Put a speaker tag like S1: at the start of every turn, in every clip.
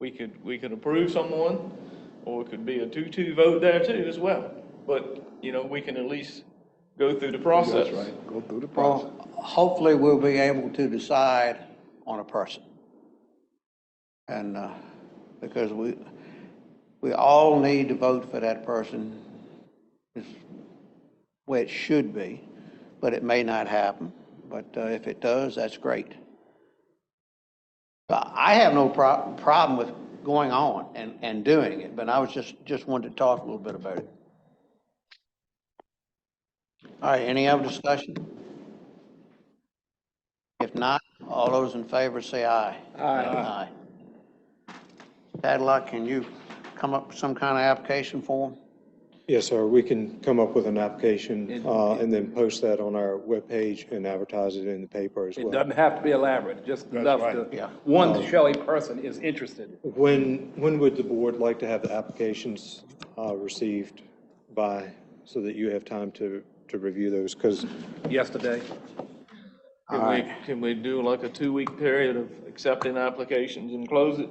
S1: We could, we could approve someone, or it could be a two-two vote there too as well. But, you know, we can at least go through the process.
S2: That's right, go through the process.
S3: Well, hopefully we'll be able to decide on a person. And, uh, because we, we all need to vote for that person, is where it should be, but it may not happen. But uh, if it does, that's great. But I have no prob, problem with going on and, and doing it, but I was just, just wanted to talk a little bit about it. All right, any other discussion? If not, all those in favor say aye. Aye. Tadlock, can you come up with some kind of application form?
S4: Yes, sir. We can come up with an application uh, and then post that on our webpage and advertise it in the paper as
S5: It
S4: well.
S5: doesn't have to be elaborate, just enough
S2: right.
S3: Yeah.
S5: to, one, to show a person is interested.
S4: When, when would the board like to have the applications uh, received by, so that you have time to, to review those? Because
S5: Yesterday,
S1: Can we, can we do like a two-week period of accepting applications and close it?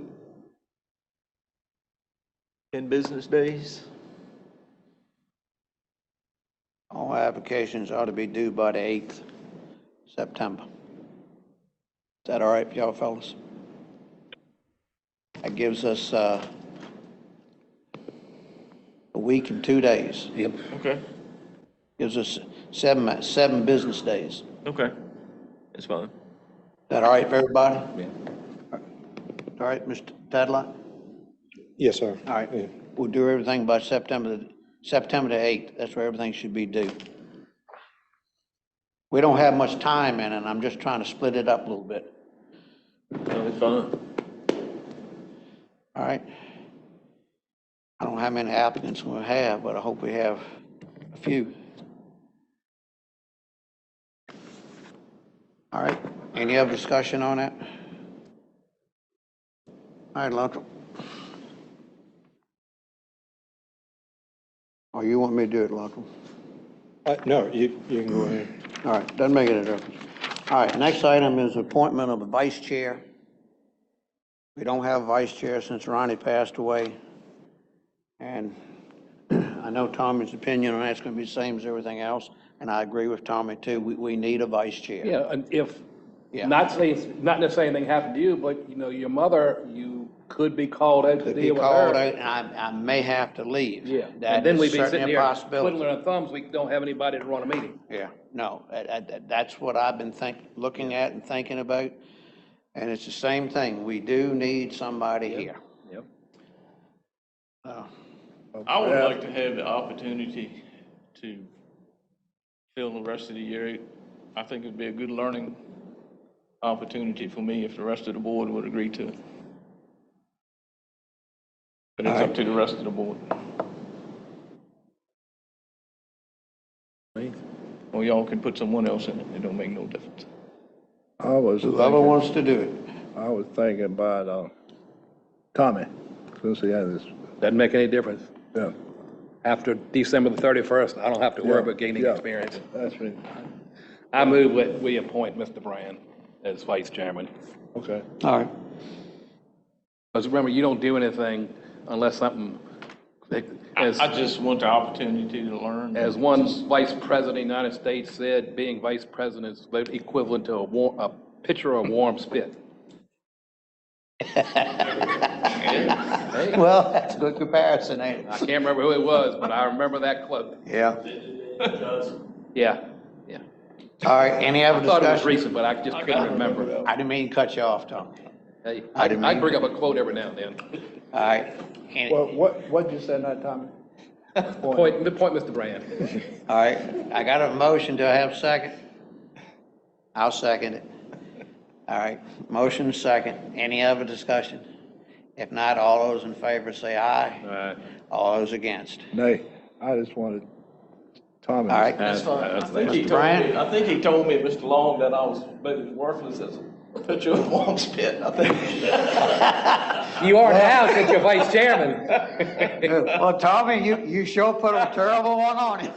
S1: In business days?
S3: All applications ought to be due by the 8th September. Is that all right for y'all fellas? That gives us uh, a week and two days. Yep.
S1: Okay,
S3: Gives us seven, seven business days.
S1: okay. That's fine.
S3: That all right for everybody? All right, Mr. Tadlock?
S4: Yes, sir.
S3: All
S4: Yeah.
S3: right, we'll do everything by September, September the 8th, that's where everything should be due. We don't have much time in it, I'm just trying to split it up a little bit,
S1: That's fine.
S3: all right? I don't know how many applicants we'll have, but I hope we have a few. All right, any other discussion on that? All right, Luttrell. Oh, you want me to do it, Luttrell?
S4: Uh, No, you, you can go ahead.
S3: All right, doesn't make any difference. All right, next item is appointment of a vice chair. We don't have a vice chair since Ronnie passed away. And I know Tommy's opinion on that's gonna be the same as everything else, and I agree with Tommy too. We, we need a vice chair.
S5: yeah, and if,
S3: Yeah.
S5: not saying, not necessarily anything happened to you, but, you know, your mother, you could be called out to
S3: Could be
S5: deal with
S3: called
S5: her.
S3: out, and I, I may have to leave.
S5: Yeah, and
S3: That
S5: then
S3: is
S5: we'd be
S3: certainly
S5: sitting
S3: a
S5: here
S3: possibility.
S5: twiddling our thumbs, we don't have anybody to run a meeting.
S3: Yeah, no, I- I- that's what I've been think, looking at and thinking about. And it's the same thing. We do need somebody here.
S5: Yep.
S1: I would like to have the opportunity to fill the rest of the year. I think it'd be a good learning opportunity for me if the rest of the board would agree to it. But it's up to the rest of the board. Or y'all can put someone else in it. It don't make no difference.
S2: I was
S3: Whoever
S2: thinking,
S3: wants to do it.
S2: I was thinking about, uh, Tommy, since he had this,
S5: Doesn't make any difference.
S2: yeah.
S5: After December the 31st, I don't have to worry about gaining
S2: Yeah.
S5: experience.
S2: That's right,
S5: I move that we appoint Mr. Brand as vice chairman.
S2: okay.
S3: All right.
S5: Because remember, you don't do anything unless something, as,
S1: I just want the opportunity to learn.
S5: as one vice president of the United States said, being vice president is about equivalent to a war, a pitcher of warm spit.
S3: Well, that's a good comparison, ain't
S5: I
S3: it?
S5: can't remember who it was, but I remember that quote.
S3: Yeah.
S5: Yeah, yeah.
S3: All right, any other
S5: I thought it was
S3: discussion?
S5: recent, but I just couldn't remember.
S3: I didn't mean to cut you off, Tom.
S5: Hey,
S3: I
S5: I,
S3: didn't
S5: I
S3: mean-
S5: bring up a quote every now and then.
S3: All right. Any-
S2: Well, what, what'd you say now, Tommy?
S5: Point, point Mr. Brand.
S3: All right, I got a motion, do I have a second? I'll second it. All right, motion second, any other discussion? If not, all those in favor say aye.
S1: Uh,
S3: All those against.
S2: Nay, I just wanted Tommy.
S3: All right,
S1: That's fine. I think he
S3: Mr.
S1: told
S3: Bryant?
S1: me, I think he told me, Mr. Long, that I was maybe worthless as a pitcher of warm spit, I think.
S5: You are now since you're vice chairman.
S3: well, Tommy, you, you sure put a terrible one on him.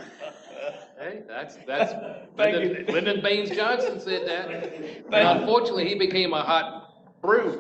S5: Hey, that's, that's,
S1: Thank
S5: Lyndon
S1: you.
S5: Lyndon Baines Johnson said that.
S1: Thank you.
S5: And unfortunately, he became a hot brew.